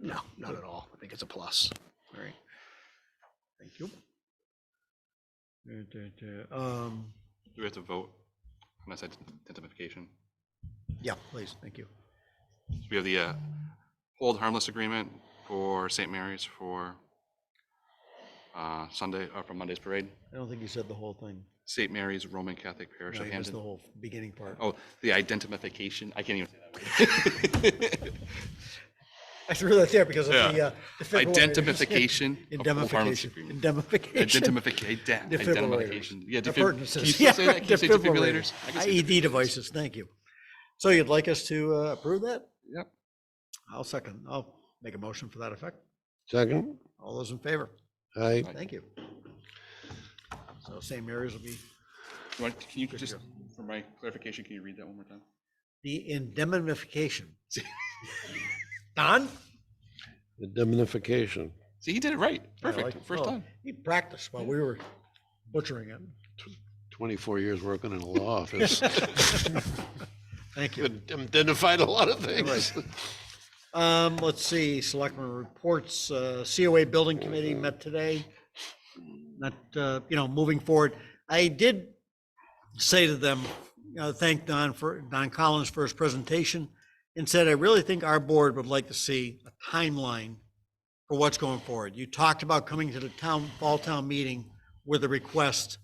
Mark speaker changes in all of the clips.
Speaker 1: No, not at all. I think it's a plus. All right. Thank you.
Speaker 2: Duh, duh, duh. Um,
Speaker 3: Do we have to vote on this ident- identification?
Speaker 1: Yeah, please. Thank you.
Speaker 3: So We have the uh, hold harmless agreement for St. Mary's for uh, Sunday, or for Monday's parade.
Speaker 2: I don't think you said the whole thing.
Speaker 3: St. Mary's Roman Catholic Parish
Speaker 2: No,
Speaker 3: of
Speaker 2: you missed the
Speaker 3: Hampton.
Speaker 2: whole beginning part.
Speaker 3: Oh, the identification, I can't even. say that word.
Speaker 2: I threw that there because of
Speaker 3: Yeah.
Speaker 2: the, uh, defibrillator.
Speaker 3: Identification. of hold harmless
Speaker 2: Indemnification.
Speaker 3: agreement.
Speaker 2: Indemnification.
Speaker 3: Identifica- ident-
Speaker 2: Defibrillators.
Speaker 3: Identification. Yeah, defib- Can you
Speaker 2: Appurtenances.
Speaker 3: still say that? Can you say
Speaker 2: Defibrillators.
Speaker 3: defibrillators? I can say
Speaker 2: IED
Speaker 3: defibrillators.
Speaker 2: E devices, thank you. So you'd like us to uh, approve that?
Speaker 3: Yep.
Speaker 2: I'll second, I'll make a motion for that effect.
Speaker 4: Second,
Speaker 2: All those in favor?
Speaker 4: aye.
Speaker 2: Thank you. So same areas will be
Speaker 3: You want- Can you just, for my clarification, can you read that one more time?
Speaker 2: the indemnification. Don?
Speaker 4: Indemnification.
Speaker 3: See, he did it right.
Speaker 2: I like
Speaker 3: Perfect.
Speaker 2: it.
Speaker 3: First
Speaker 2: Oh,
Speaker 3: time.
Speaker 2: He practiced while we were butchering it.
Speaker 4: 24 years working in a law office.
Speaker 2: Thank you.
Speaker 4: Identified a lot of things.
Speaker 2: Um, let's see, selectmen reports, uh, COA Building Committee met today. Not, uh, you know, moving forward, I did say to them, you know, thank Don for, Don Collins for his presentation. And said, I really think our board would like to see a timeline for what's going forward. You talked about coming to the town, fall town meeting with a request.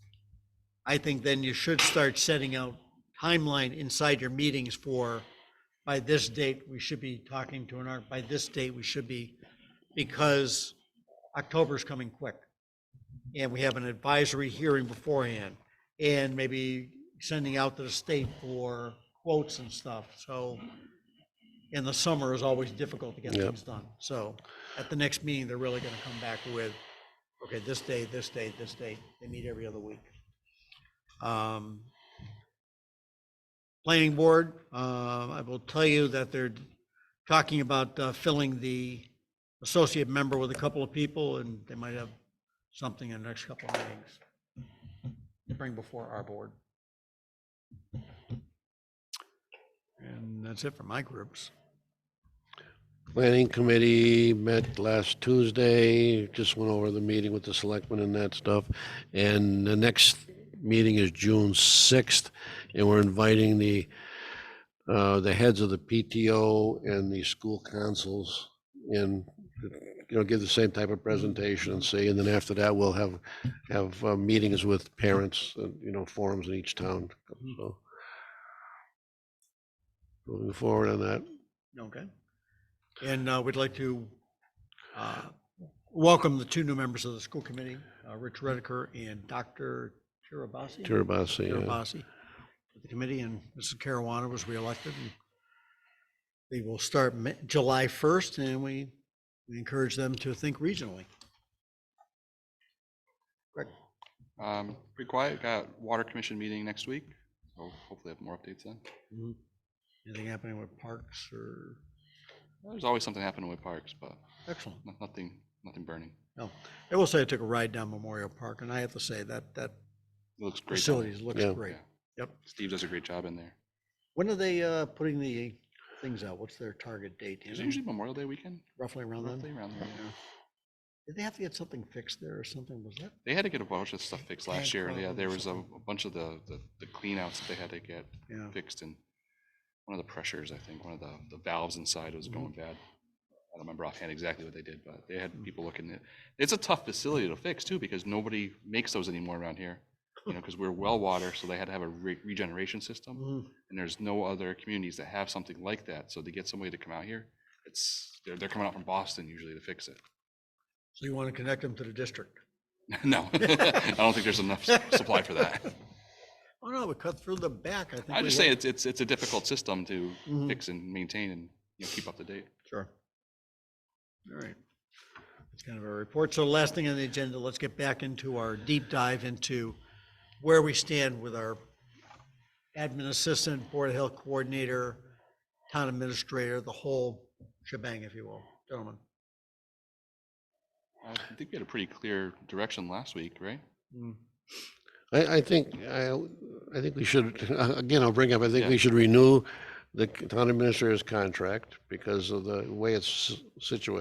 Speaker 2: I think then you should start setting out timeline inside your meetings for by this date, we should be talking to an art, by this date, we should be, because October's coming quick. And we have an advisory hearing beforehand, and maybe sending out to the state for quotes and stuff, so. In the summer is always difficult to get
Speaker 4: Yep.
Speaker 2: things done, so at the next meeting, they're really gonna come back with, okay, this day, this day, this day, they meet every other week. Um, planning board. Uh, I will tell you that they're talking about uh, filling the associate member with a couple of people, and they might have something in the next couple of meetings to bring before our board. And that's it for my groups.
Speaker 4: Planning Committee met last Tuesday, just went over the meeting with the selectmen and that stuff. And the next meeting is June 6th, and we're inviting the, uh, the heads of the PTO and the school councils in, you know, give the same type of presentation and see. And then after that, we'll have, have uh, meetings with parents, uh, you know, forums in each town. So Moving forward on that.
Speaker 2: Okay. And uh, we'd like to uh, welcome the two new members of the school committee, uh, Rich Rediker and Dr. Tirabassi.
Speaker 4: Tirabassi,
Speaker 2: Chair
Speaker 4: yeah.
Speaker 2: Abbasi to the committee, and Mrs. Caruana was reelected. and They will start Ma- July 1st, and we we encourage them to think regionally.
Speaker 3: Um, pretty quiet. Got water commission meeting next week. So hopefully have more updates then.
Speaker 2: Anything happening with parks or,
Speaker 3: There's always something happening with parks, but
Speaker 2: excellent.
Speaker 3: no- nothing, nothing burning.
Speaker 2: No, I will say I took a ride down Memorial Park, and I have to say that that
Speaker 3: It looks great. down there.
Speaker 2: facility looks
Speaker 4: Yeah.
Speaker 2: great.
Speaker 3: Yeah.
Speaker 2: Yep.
Speaker 3: Steve does a great job in there.
Speaker 2: When are they uh, putting the things out? What's their target date? Do you
Speaker 3: Is it
Speaker 2: know?
Speaker 3: usually Memorial Day weekend?
Speaker 2: Roughly around
Speaker 3: Roughly
Speaker 2: then?
Speaker 3: around there. yeah.
Speaker 2: Did they have to get something fixed there or something? Was that?
Speaker 3: They had to get a bunch of stuff fixed
Speaker 2: Tag
Speaker 3: last year. Yeah,
Speaker 2: problem
Speaker 3: there
Speaker 2: or
Speaker 3: was a,
Speaker 2: something.
Speaker 3: a bunch of the, the, the cleanouts that they had to get
Speaker 2: Yeah.
Speaker 3: fixed and one of the pressures, I think, one of the, the valves inside was
Speaker 2: Mhm.
Speaker 3: going bad. I don't remember offhand exactly what they did, but they had people looking at, it's a tough facility to fix too, because nobody makes those anymore around here. You know, because we're well water, so they had to have a re- regeneration system,
Speaker 2: Mhm.
Speaker 3: and there's no other communities that have something like that, so to get somebody to come out here, it's, they're, they're coming out from Boston usually to fix it.
Speaker 2: So you want to connect them to the district?
Speaker 3: No, I don't think there's enough s- supply for that.
Speaker 2: Oh, no, we cut through the back, I think.
Speaker 3: I
Speaker 2: we
Speaker 3: just say
Speaker 2: had-
Speaker 3: it's, it's, it's a difficult system to
Speaker 2: Mhm.
Speaker 3: fix and maintain and, you know, keep up to date.
Speaker 2: Sure. All right. That's kind of our report. So last thing on the agenda, let's get back into our deep dive into where we stand with our admin assistant, board of health coordinator, town administrator, the whole shebang, if you will. Gentlemen.
Speaker 3: I think we had a pretty clear direction last week, right?
Speaker 4: I, I think, I, I think we should, again, I'll bring up, I think we should renew the town administrator's contract because of the way it's situated.